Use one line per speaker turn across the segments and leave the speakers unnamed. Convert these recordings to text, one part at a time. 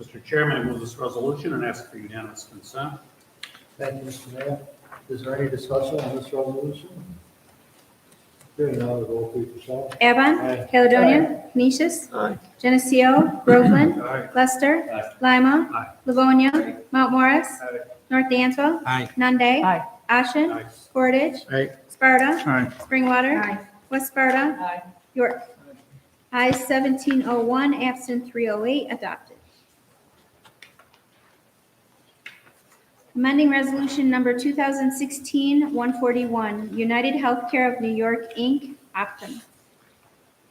Mr. Chairman, I move this resolution and ask for unanimous consent.
Thank you, Mr. Mayor. Is there any discussion on this resolution? Hearing none, roll please, Michelle.
Evan.
Aye.
Caledonia. Canisius.
Aye.
Geneseo. Groveland. Lester.
Aye.
Lima.
Aye.
Livonia. Mount Morris.
Aye.
North Dansville.
Aye.
Nunde.
Aye.
Ashen.
Aye.
Portage.
Aye.
Sparta.
Aye.
Springwater. West Sparta.
Aye.
York. I seventeen oh one, absent three oh eight, adopted. Amending Resolution Number 2016-141, United Healthcare of New York, Inc., Optum.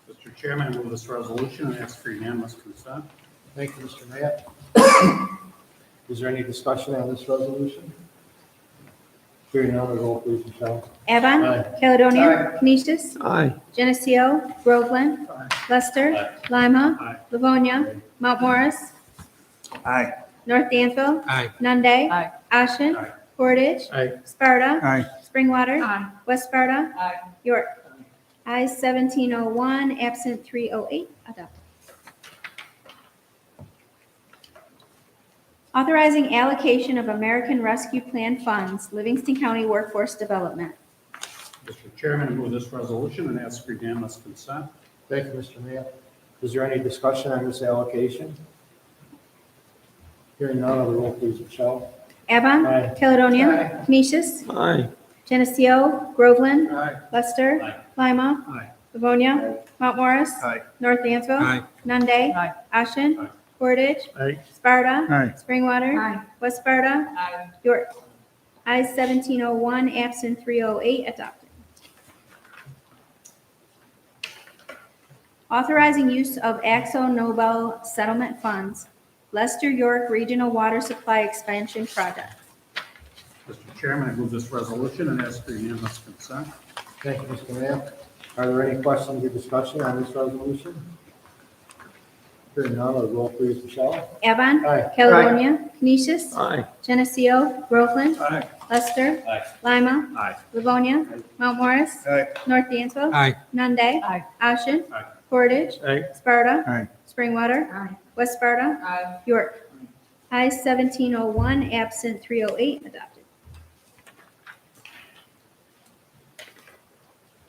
Mr. Chairman, I move this resolution and ask for unanimous consent.
Thank you, Mr. Mayor. Is there any discussion on this resolution? Hearing none, roll please, Michelle.
Evan.
Aye.
Caledonia. Canisius.
Aye.
Geneseo. Groveland. Lester. Lima.
Aye.
Livonia.
Aye.
Mount Morris.
Aye.
North Danville.
Aye.
Nunde.
Aye.
Ashen.
Aye.
Portage.
Aye.
Sparta.
Aye.
Springwater.
Aye.
West Sparta.
Aye.
York. I seventeen oh one, absent three oh eight, adopted. Authorizing allocation of American Rescue Plan funds, Livingston County Workforce Development.
Mr. Chairman, I move this resolution and ask for unanimous consent.
Thank you, Mr. Mayor. Is there any discussion on this allocation? Hearing none, roll please, Michelle.
Evan.
Aye.
Caledonia. Canisius.
Aye.
Geneseo. Groveland.
Aye.
Lester.
Aye.
Lima.
Aye.
Livonia. Mount Morris.
Aye.
North Dansville.
Aye.
Nunde.
Aye.
Ashen.
Aye.
Portage.
Aye.
Sparta.
Aye.
Springwater. West Sparta.
Aye.
York. Ayes seventeen oh one, absent three oh eight, adopted. Authorizing use of Axo Nobel settlement funds, Lester York Regional Water Supply Expansion Project.
Mr. Chairman, I move this resolution and ask for unanimous consent.
Thank you, Mr. Mayor. Are there any questions or discussion on this resolution? Hearing none, roll please, Michelle.
Evan.
Aye.
Caledonia. Canisius.
Aye.
Geneseo. Groveland.
Aye.
Lester.
Aye.
Lima.
Aye.
Livonia. Mount Morris.
Aye.
North Dansville.
Aye.
Nunde.
Aye.
Ashen.
Aye.
Portage.
Aye.
Sparta.
Aye.
Springwater.
Aye.
West Sparta.
Aye.
York. I seventeen oh one, absent three oh eight, adopted.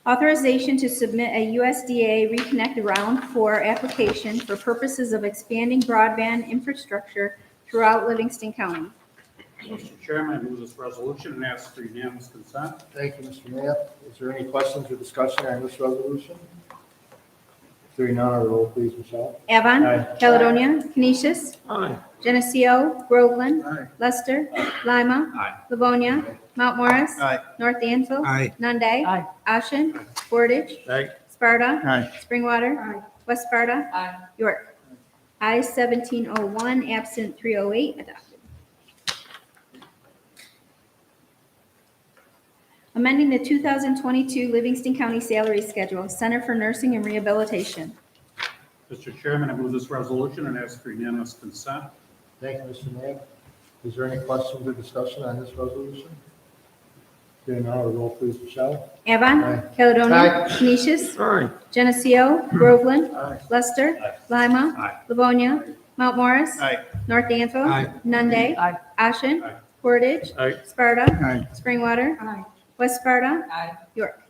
Authorization to submit a USDA Reconnect Round Four application for purposes of expanding broadband infrastructure throughout Livingston County.
Mr. Chairman, I move this resolution and ask for unanimous consent.
Thank you, Mr. Mayor. Is there any questions or discussion on this resolution? Hearing none, roll please, Michelle.
Evan.
Aye.
Caledonia. Canisius.
Aye.
Geneseo. Groveland.
Aye.
Lester. Lima.
Aye.
Livonia. Mount Morris.
Aye.
North Dansville.
Aye.
Nunde.
Aye.
Ashen. Portage.
Aye.
Sparta.
Aye.
Springwater. West Sparta.
Aye.
York. I seventeen oh one, absent three oh eight, adopted. Amending the two thousand twenty-two Livingston County Salary Schedule, Center for Nursing and Rehabilitation.
Mr. Chairman, I move this resolution and ask for unanimous consent.
Thank you, Mr. Mayor. Is there any questions or discussion on this resolution? Hearing none, roll please, Michelle.
Evan.
Aye. Hmm.
Caledonia. Canisius.
Aye.
Geneseo. Groveland.
Aye.
Lester.
Aye.
Lima.
Aye.
Livonia. Mount Morris.
Aye.
North Dansville.
Aye.
Nunde.
Aye.
Ashen.
Aye.
Portage.
Aye.
Sparta.
Aye.
Springwater.
Aye.
West Sparta.
Aye.
York.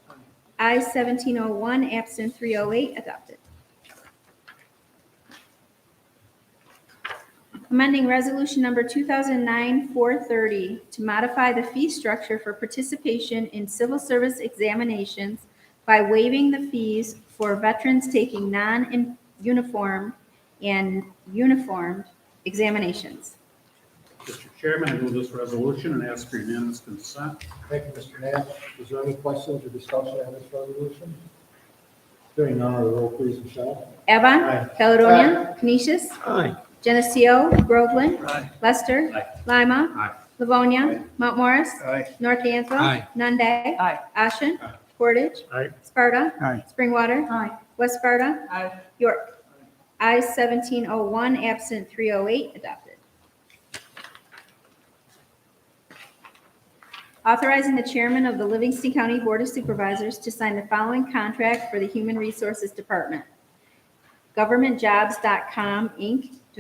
I seventeen oh one, absent three oh eight, adopted. Amending resolution number 2009-430 to modify the fee structure for participation in civil service examinations by waiving the fees for veterans taking non-uniform and uniformed examinations.
Mr. Chairman, I move this resolution and ask for unanimous consent.
Thank you, Mr. Mayor. Is there any questions or discussion on this resolution? Hearing none, roll please, Michelle.
Evan.
Aye.
Caledonia. Canisius.
Aye.
Geneseo, Groveland. Lester.
Aye.
Lima.
Aye.
Livonia. Mount Morris.
Aye.
North Dansville.
Aye.
Nunde.
Aye.
Ashen.
Aye.
Portage.
Aye.
Sparta.
Aye.
Springwater.
Aye.
West Sparta.
Aye.
York. I seventeen oh one, absent three oh eight, adopted. Authorizing the chairman of the Livingston County Board of Supervisors to sign the following contract for the Human Resources Department. GovernmentJobs.com, Inc.,